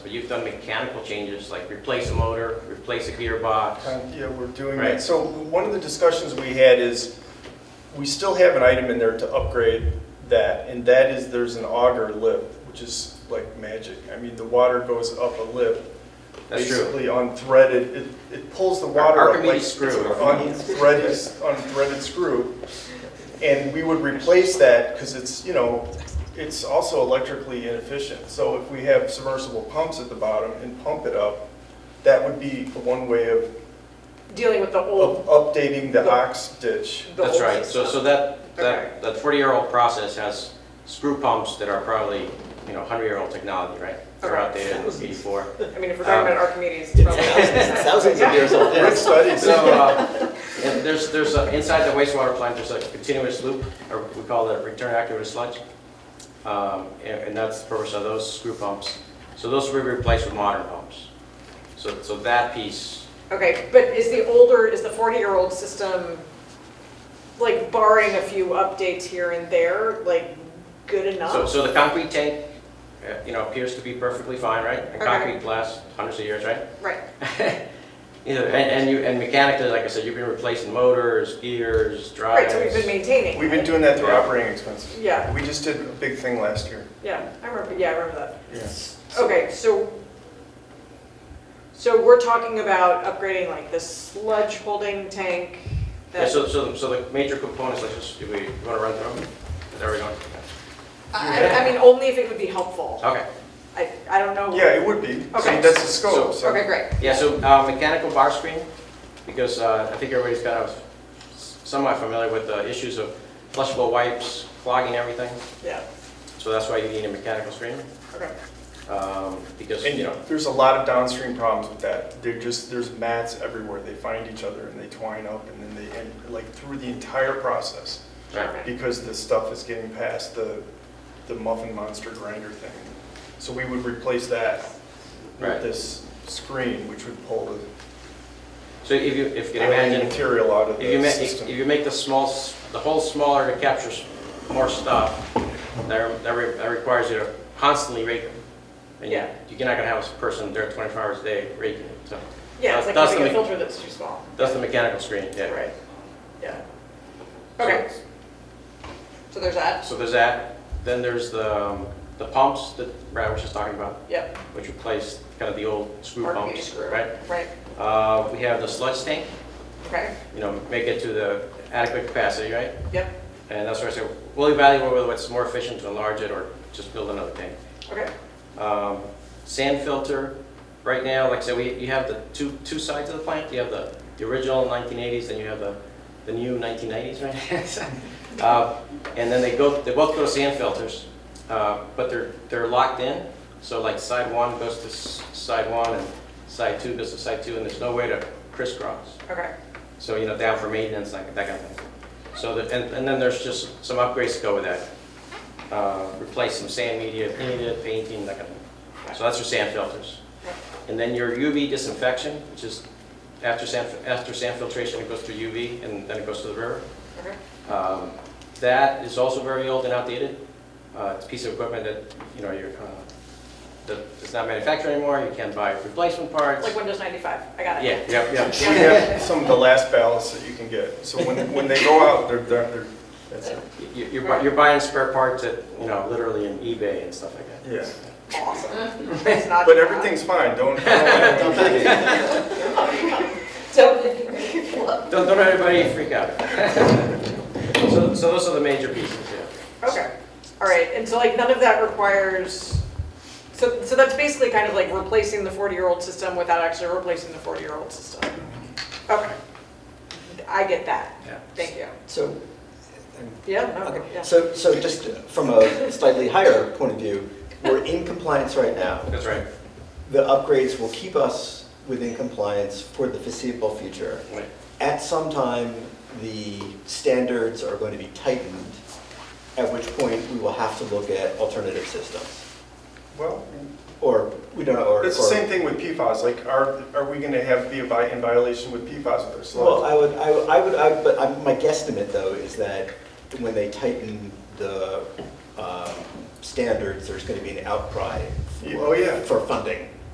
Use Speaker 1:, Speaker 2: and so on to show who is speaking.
Speaker 1: But you've done mechanical changes, like replace a motor, replace a gearbox.
Speaker 2: Uh, Yeah, we're doing
Speaker 1: Right.
Speaker 2: that. So one of the discussions we had is, we still have an item in there to upgrade that, and that is there's an auger lip, which is like magic. I mean, the water goes up a lip.
Speaker 1: That's true.
Speaker 2: Basically unthreaded, it, it pulls the water up like
Speaker 1: Archimedes
Speaker 2: it's an
Speaker 1: screw.
Speaker 2: unthreaded, unthreaded screw. And we would replace that, because it's, you know, it's also electrically inefficient. So if we have submersible pumps at the bottom and pump it up, that would be one way of
Speaker 3: dealing with the old.
Speaker 2: of updating the
Speaker 3: The-
Speaker 2: ox ditch.
Speaker 3: the
Speaker 1: Oh, That's
Speaker 3: old
Speaker 1: right, so, so
Speaker 3: system.
Speaker 1: that,
Speaker 3: Okay.
Speaker 1: that, that forty-year-old process has screw pumps that are probably, you know, hundred-year-old technology, right? They're
Speaker 3: Okay.
Speaker 1: outdated in eighty-four.
Speaker 3: I mean, if we're talking
Speaker 1: Um,
Speaker 3: about Archimedes, it's probably.
Speaker 4: Thousands thousands of years old,
Speaker 2: Good
Speaker 4: yes.
Speaker 2: studies.
Speaker 1: So, uh, and there's, there's, a- inside the wastewater plant, there's a continuous loop, or we call it return active sludge. Um, And and that's the purpose of those screw pumps. So those will be replaced with modern pumps. So, so that piece,
Speaker 3: Okay, but is the older, is the 40-year-old system, like barring a few updates here and there, like good
Speaker 1: so,
Speaker 3: enough?
Speaker 1: so the concrete tank, uh, you know, appears to be perfectly fine, right? And
Speaker 3: Okay.
Speaker 1: concrete lasts hundreds of years, right?
Speaker 3: Right,
Speaker 1: You know, and, and you, and mechanically, like I said, you've been replacing motors, gears,
Speaker 3: right,
Speaker 1: drives.
Speaker 3: so we've been maintaining.
Speaker 2: We've been
Speaker 3: right?
Speaker 2: doing that through operating expenses.
Speaker 3: Yeah.
Speaker 2: We just did a big thing last year.
Speaker 3: Yeah, I remember, yeah, I remember that.
Speaker 2: Yeah.
Speaker 3: Okay, so, so we're talking about upgrading like the sludge holding tank
Speaker 1: Yeah,
Speaker 3: that,
Speaker 1: so, so, the- so the major components, let's just, do we, you wanna run through them? There we go.
Speaker 3: I, I- I mean, only if it would be helpful.
Speaker 1: Okay.
Speaker 3: I, I don't know.
Speaker 2: Yeah, it would be. I
Speaker 3: Okay.
Speaker 2: mean, that's the scope, so.
Speaker 3: Okay, great.
Speaker 1: Yeah, so uh, mechanical bar screen, because uh, I think everybody's kind of somewhat familiar with the issues of flushable wipes clogging everything,
Speaker 3: Yeah,
Speaker 1: so that's why you need a mechanical screen,
Speaker 3: okay.
Speaker 1: um, because,
Speaker 2: And,
Speaker 1: you
Speaker 2: you
Speaker 1: know,
Speaker 2: there's a lot of downstream problems with that. They're just, there's mats everywhere. They find each other and they twine up and then they, and like through the entire process,
Speaker 1: right.
Speaker 2: because the stuff is getting past the, the muffin monster grinder thing. So we would replace that
Speaker 1: Right.
Speaker 2: with this screen, which would pull the
Speaker 1: So if you, if you can
Speaker 2: alien
Speaker 1: imagine,
Speaker 2: material out of
Speaker 1: if you
Speaker 2: the
Speaker 1: ma,
Speaker 2: system.
Speaker 1: if you make the small, s- the hole smaller to capture s- more stuff, that, that re- that requires you to constantly rake them. And you-
Speaker 3: Yeah.
Speaker 1: you're not gonna have a person there twenty-four hours a day raking it, so,
Speaker 3: Yeah, it's like
Speaker 1: That's the
Speaker 3: having a
Speaker 1: me-
Speaker 3: filter that's too small.
Speaker 1: that's the mechanical screen, yeah.
Speaker 3: Right, yeah.
Speaker 1: So-
Speaker 3: Okay, so there's that,
Speaker 1: So there's that, then there's the, um, the pumps that Brad was just talking about,
Speaker 3: yep.
Speaker 1: which replaced kind of the old screw
Speaker 3: Archimedes
Speaker 1: pumps,
Speaker 3: screw.
Speaker 1: right?
Speaker 3: Right,
Speaker 1: Uh, we have the sludge tank,
Speaker 3: okay,
Speaker 1: you know, make it to the adequate capacity, right?
Speaker 3: yep,
Speaker 1: And that's where I say, we'll evaluate whether it's more efficient to enlarge it or just build another tank.
Speaker 3: okay,
Speaker 1: Um, Sand filter, right now, like I said, we, you have the two, two sides of the plant, you have the, the original nineteen eighties, then you have the, the new nineteen nineties, right? Uh, And then they go, they both go to sand filters, uh, but they're, they're locked in, so like side one goes to s- side one, and side two goes to side two, and there's no way to crisscross.
Speaker 3: okay,
Speaker 1: So, you know, down for maintenance, like that kind of thing. So, the- and, and then there's just some upgrades to go with that. Uh, Replace some sand media, paint it, painting, that kind of thing. So that's your sand filters. And then your UV disinfection, which is after sand, after sand filtration, it goes through UV and then it goes to the river.
Speaker 3: okay,
Speaker 1: Um, That is also very old and outdated. Uh, It's a piece of equipment that, you know, you're, uh, that is not manufactured anymore, you can't buy replacement parts.
Speaker 3: like Windows 95, I got it.
Speaker 1: Yeah, yeah, yeah.
Speaker 2: We have some of the last ballots that you can get. So when, when they go out, they're, they're, they're- that's it.
Speaker 1: You- You're, bu- you're buying spare parts at, you know, literally in eBay and stuff like that.
Speaker 2: Yeah.
Speaker 3: Awesome. It's not-
Speaker 2: But everything's fine, don't, don't-
Speaker 5: So,
Speaker 1: Don't, don't let anybody freak out. So, so those are the major pieces, yeah.
Speaker 3: Okay, all right, and so like none of that requires, so, so that's basically kind of like replacing the 40-year-old system without actually replacing the 40-year-old system. Okay, I get that,
Speaker 1: Yeah.
Speaker 3: thank you.
Speaker 4: So,
Speaker 3: Yeah, no,
Speaker 4: okay,
Speaker 3: yeah.
Speaker 4: so, so just from a slightly higher point of view, we're in compliance right now.
Speaker 1: That's right.
Speaker 4: The upgrades will keep us within compliance for the foreseeable future.
Speaker 1: Right.
Speaker 4: At some time, the standards are going to be tightened, at which point we will have to look at alternative systems.
Speaker 2: well,
Speaker 4: Or, we don't know, or.
Speaker 2: it's the
Speaker 4: or-
Speaker 2: same thing with PFAS. Like, are, are we gonna have, be a vi- in violation with PFAS with our
Speaker 4: Well,
Speaker 2: sludge?
Speaker 4: I would, I would- I would, I- but I'm- my guesstimate, though, is that when they tighten the um, standards, there's going to be an outcry
Speaker 2: Yeah, oh, yeah.
Speaker 4: for- for funding.